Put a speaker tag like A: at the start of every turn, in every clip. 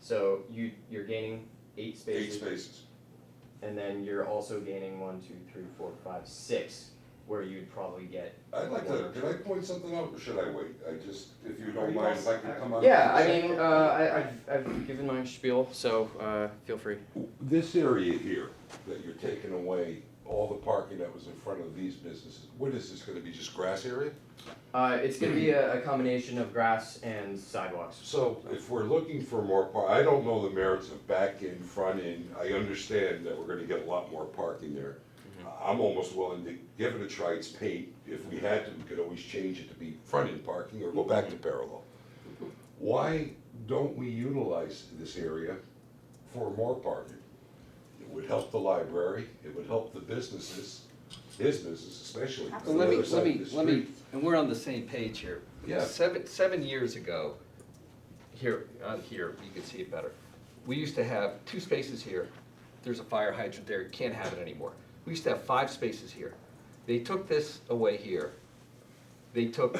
A: So you, you're gaining eight
B: eight
A: spaces,
B: spaces.
A: and then you're also gaining one, two, three, four, five, six, where you'd probably get.
B: I'd like to, can I point something out, or should I wait? I just, if you don't mind, if I can come on.
A: Yeah, I mean, uh, I, I've, I've given my spiel, so, uh, feel free.
B: This area here, that you're taking away, all the parking that was in front of these businesses, what is this gonna be, just grass area?
A: Uh, it's gonna be a, a combination of grass and sidewalks.
B: So if we're looking for more par, I don't know the merits of back in, front in, I understand that we're gonna get a lot more parking there. I'm almost willing to give it a try, it's paint, if we had to, we could always change it to be front in parking or go back to parallel. Why don't we utilize this area for more parking? It would help the library, it would help the businesses, his business especially. on the
C: Well, let me,
B: other side
C: let
B: of
C: me,
B: the
C: let me,
B: street.
C: and we're on the same page here.
B: Yeah.
C: Seven, seven years ago, here, on here, you can see it better. We used to have two spaces here, there's a fire hydrant there, you can't have it anymore. We used to have five spaces here. They took this away here. They took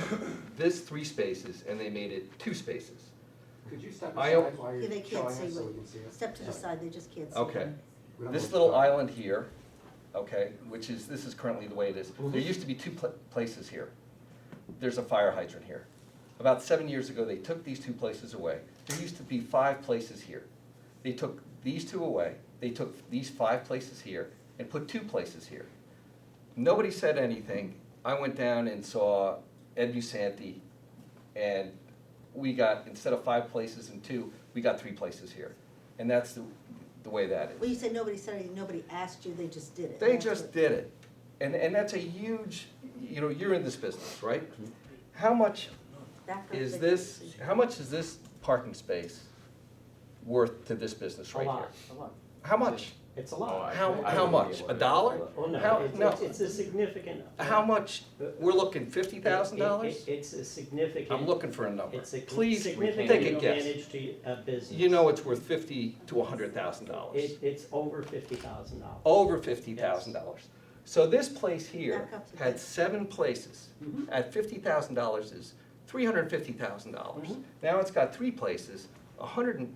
C: this three spaces and they made it two spaces.
D: Could you step
C: I-
D: aside while
E: Yeah, they
D: you're showing
E: can't
D: us
E: see
D: so
E: what-
D: we can see it?
E: Step to the side, they just can't see.
C: Okay.
D: We don't
C: This
D: have-
C: little island here, okay, which is, this is currently the way it is, there used to be two pla- places here. There's a fire hydrant here. About seven years ago, they took these two places away. There used to be five places here. They took these two away, they took these five places here, and put two places here. Nobody said anything. I went down and saw Ed Musanti, and we got, instead of five places and two, we got three places here. And that's the, the way that is.
E: Well, you said nobody said anything, nobody asked you, they just did it.
C: They
E: That's
C: just
E: what-
C: did it. And, and that's a huge, you know, you're in this business, right? How much
E: that part
C: is
E: they
C: this,
E: didn't see.
C: how much is this parking space worth to this business
F: A
C: right
F: lot,
C: here?
F: a lot.
C: How much?
F: It's a
A: Oh, I-
F: lot.
C: How,
A: I
C: how
A: wouldn't be
C: much?
A: able
C: A
A: to-
C: dollar?
F: Well,
C: How-
F: no, it's-
C: no.
F: it's, it's a significant.
C: How much? We're looking fifty thousand
F: It-
C: dollars?
F: it- It's a significant.
C: I'm looking for a number.
F: It's a
C: Please,
F: significant
C: take a guess.
F: advantage to a business.
C: You know it's worth fifty to a hundred thousand dollars.
F: It, it's over fifty thousand dollars.
C: Over fifty thousand dollars. So this place here
E: Back up to
C: had
E: this.
C: seven places.
F: Mm-hmm.
C: At fifty thousand dollars is three hundred and fifty thousand dollars.
F: Mhm.
C: Now it's got three places, a hundred and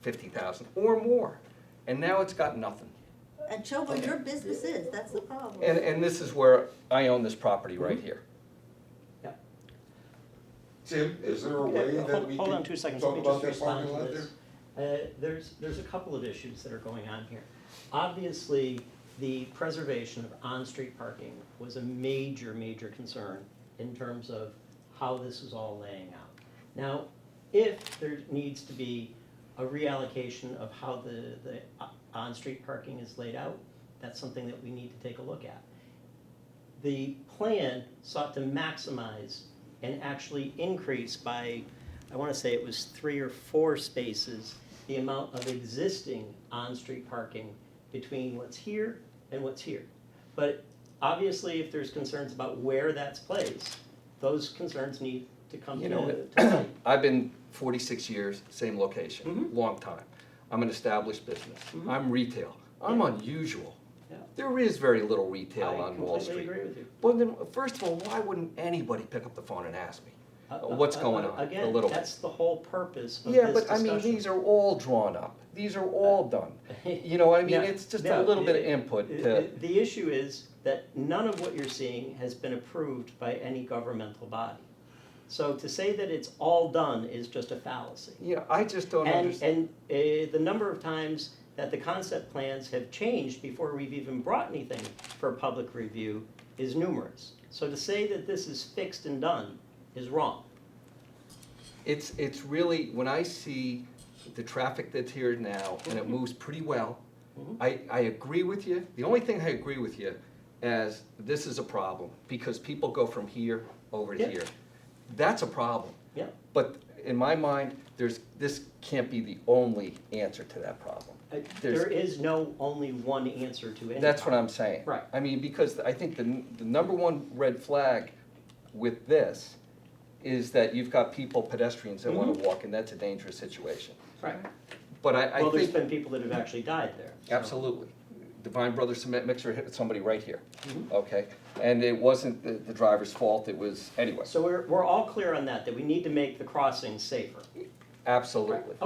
C: fifty thousand or more. And now it's got nothing.
E: And show where your business is, that's the problem.
C: And, and this is where I own this property right
F: Mm-hmm.
C: here.
B: Tim, is there a way
F: Yeah,
B: that
F: hold-
B: we
F: Hold on
B: can
F: two seconds, let
B: talk
F: me
B: about
F: just
B: that
F: respond
B: parking
F: to
B: lot there?
F: this. Uh, There's, there's a couple of issues that are going on here. Obviously, the preservation of on-street parking was a major, major concern in terms of how this is all laying out. Now, if there needs to be a reallocation of how the, the o- on-street parking is laid out, that's something that we need to take a look at. The plan sought to maximize and actually increase by, I want to say it was three or four spaces, the amount of existing on-street parking between what's here and what's here. But obviously, if there's concerns about where that's placed, those concerns need to come
C: You
F: to.
C: know,
F: to light.
C: I've been forty-six years, same location,
F: Mhm.
C: long time. I'm an established business.
F: Mhm.
C: I'm retail. I'm
F: Yeah.
C: unusual.
F: Yeah.
C: There is very little retail on Wall
F: I completely
C: Street.
F: agree with you.
C: Well, then, first of all, why wouldn't anybody pick up the phone and ask me?
F: Uh, uh,
C: What's
F: uh,
C: going
F: uh,
C: on, the little-
F: Again, that's the whole purpose of this
C: Yeah, but I
F: discussion. Uh,
C: mean, these are all drawn up. These are all done. You know what I mean?
F: Yeah,
C: It's just a
F: yeah,
C: little bit of
F: it-
C: input
F: it-
C: to,
F: it- The issue is that none of what you're seeing has been approved by any governmental body. So to say that it's all done is just a fallacy.
C: you know, I just don't
F: And,
C: understand.
F: and uh, the number of times that the concept plans have changed before we've even brought anything for public review is numerous. So to say that this is fixed and done is wrong.
C: It's, it's really, when I see the traffic that's here now and
F: Mm-hmm.
C: it moves pretty well,
F: Mhm.
C: I, I agree with you. The only thing I agree with you is this is a problem because people go from here over to
F: Yeah.
C: here. That's a problem.
F: Yeah,
C: But in my mind, there's, this can't be the only answer to that problem.
F: Uh,
C: There's-
F: there is no only one answer to any.
C: That's what
F: problem.
C: I'm saying.
F: Right.
C: I mean, because I think the, n- the number one red flag with this is that you've got people, pedestrians that wanna
F: Mhm.
C: walk, and that's a dangerous situation.
F: Right.
C: But I, I
F: Well, there's
C: think,
F: been people that have actually died there. so-
C: absolutely, Divine Brothers Cement Mixer hit somebody right here,
F: Mhm.
C: okay? And it wasn't the, the driver's fault, it was, anyway,
F: So we're, we're all clear on that, that we need to make the crossing safer.
C: absolutely.